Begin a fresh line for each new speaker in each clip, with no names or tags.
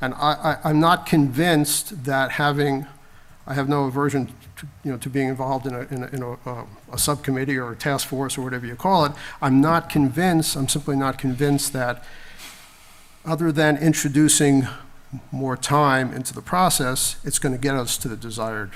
And I, I, I'm not convinced that having, I have no aversion to, you know, to being involved in a, in a, in a, uh, a subcommittee or a task force or whatever you call it. I'm not convinced, I'm simply not convinced that, other than introducing more time into the process, it's going to get us to the desired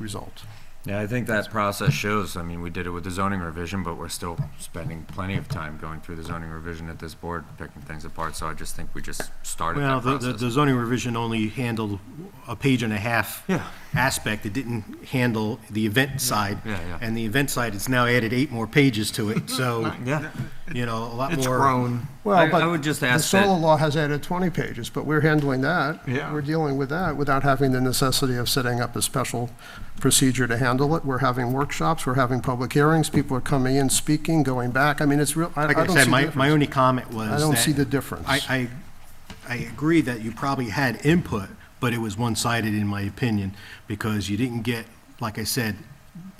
result.
Yeah, I think that process shows, I mean, we did it with the zoning revision, but we're still spending plenty of time going through the zoning revision at this board, picking things apart, so I just think we just started
Well,
that
the- the the
process.
zoning revision only handled a page and a half
Yeah.
aspect. It didn't handle the event side.
Yeah, yeah.
And the event side, it's now added eight more pages to it, so,
Yeah,
you know, a lot more.
It's grown.
I-
Well, but
I would just
the
ask that-
solar law has added 20 pages, but we're handling that.
Yeah.
We're dealing with that without having the necessity of setting up a special procedure to handle it. We're having workshops, we're having public hearings, people are coming in, speaking, going back. I mean, it's real, I I
Like I
don't see
said, my,
difference.
my only comment was
I don't
that
see the difference.
I, I, I agree that you probably had input, but it was one-sided in my opinion, because you didn't get, like I said,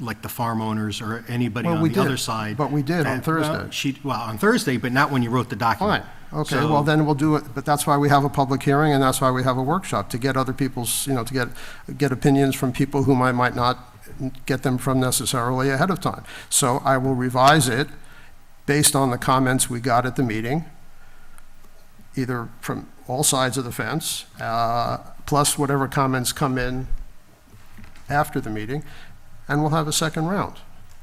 like the farm owners or anybody
Well,
on
we
the other
did,
side.
but we did on
that- well,
Thursday.
She, well, on Thursday, but not when you wrote the document.
Fine, okay,
So-
well, then we'll do it, but that's why we have a public hearing, and that's why we have a workshop, to get other people's, you know, to get, get opinions from people whom I might not get them from necessarily ahead of time. So I will revise it based on the comments we got at the meeting, either from all sides of the fence, uh, plus whatever comments come in after the meeting, and we'll have a second round,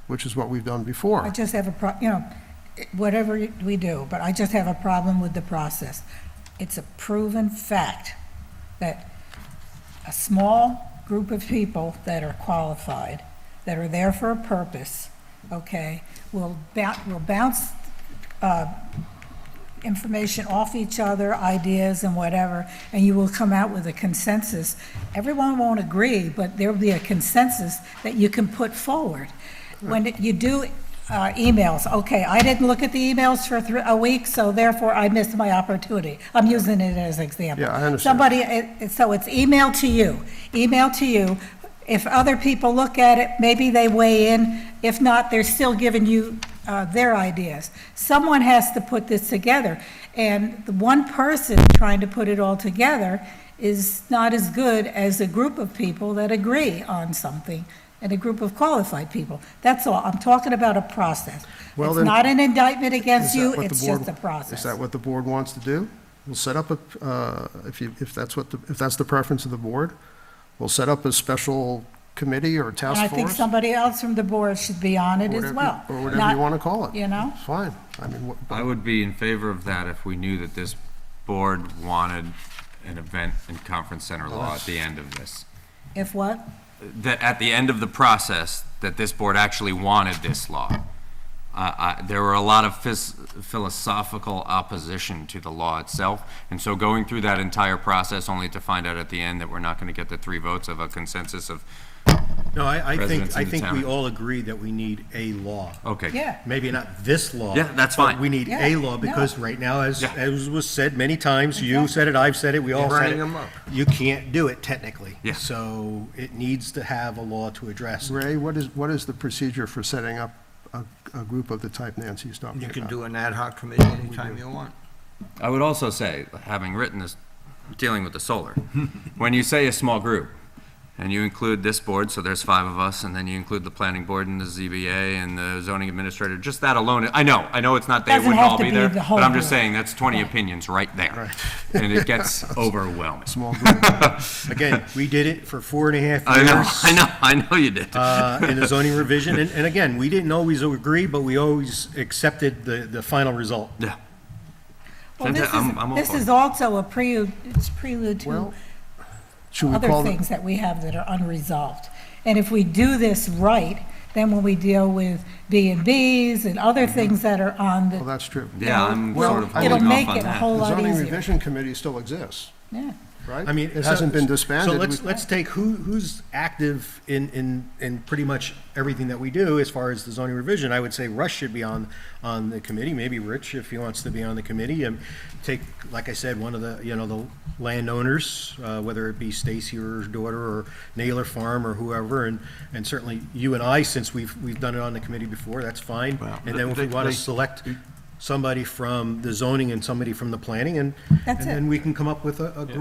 which is what we've done before.
I just have a pro, you know, whatever we do, but I just have a problem with the process. It's a proven fact that a small group of people that are qualified, that are there for a purpose, okay, will bounce, will bounce, uh, information off each other, ideas and whatever, and you will come out with a consensus. Everyone won't agree, but there'll be a consensus that you can put forward. When it- you do uh, emails, okay, I didn't look at the emails for thr- a week, so therefore I missed my opportunity. I'm using it as an example.
Yeah, I understand.
Somebody, it- it- eh, so it's email to you, email to you. If other people look at it, maybe they weigh in. If not, they're still giving you uh, their ideas. Someone has to put this together, and the one person trying to put it all together is not as good as a group of people that agree on something, and a group of qualified people. That's all. I'm talking about a process.
Well,
It's
then-
not an indictment
Is
against
that
you,
what the
it's
board-
just a process.
Is that what the board wants to do? We'll set up a, uh, if you, if that's what, the if that's the preference of the board, we'll set up a special committee or task
And
force.
I think somebody else from the board should be on it as
whatever-
well.
Or whatever
Not-
you want to call it.
you know?
It's fine. I mean, what-
I would be in favor of that if we knew that this board wanted an event and conference center law at the end of this.
If what?
that at the end of the process, that this board actually wanted this law. Uh, I, there were a lot of phys- philosophical opposition to the law itself, and so going through that entire process only to find out at the end that we're not going to get the three votes of a consensus of,
No, I, I
Residents
think,
in
I
the
think
town.
we all agree that we need a law.
okay.
Yeah.
Maybe not this law.
Yeah, that's
but
fine.
We need
Yeah,
a law, because right now, as,
Yeah.
as was said many times, you said it, I've said it, we all said
Burning
it.
them up.
You can't do it technically.
Yeah.
So it needs to have a law to address it.
Ray, what is, what is the procedure for setting up a, a group of the type Nancy's talking
You
about?
can do an ad hoc committee anytime you want.
I would also say, having written this, dealing with the solar, when you say a small group, and you include this board, so there's five of us, and then you include the planning board and the ZBA and the zoning administrator, just that alone, I know, I know it's not, they
Doesn't
wouldn't
have
all
to
be
be
there,
the
but
whole
I'm just
board.
saying, that's twenty opinions right there. And it gets overwhelming.
Small group.
Again, we did it for four and a half
I
years.
know, I know, I know you did.
uh, in the zoning revision, and, and again, we didn't always agree, but we always accepted the, the final result.
Yeah,
Well, this
I'm- I'm all
is, this
for it.
is also a prelude, it's prelude
Well,
to
Should we
other
call it?
things that we have that are unresolved. And if we do this right, then when we deal with B and Bs and other things that are on
Well,
the,
that's true.
Mm-hmm. yeah, I'm
Well,
sort of
it'll
holding
make
off on
it a
that.
whole-
The
lot
zoning
easier.
revision committee still exists,
yeah.
right?
I mean.
It
so-
hasn't been disbanded.
So let's,
We-
let's take who, who's active in, in, in pretty much everything that we do as far as the zoning revision. I would say Russ should be on, on the committee, maybe Rich if he wants to be on the committee. And take, like I said, one of the, you know, the landowners, uh, whether it be Stacy or her daughter or Naylor Farm or whoever. And, and certainly you and I, since we've, we've done it on the committee before, that's fine. And then if we want to select somebody from the zoning and somebody from the planning and, and
That's it.
then we can come up with a, a group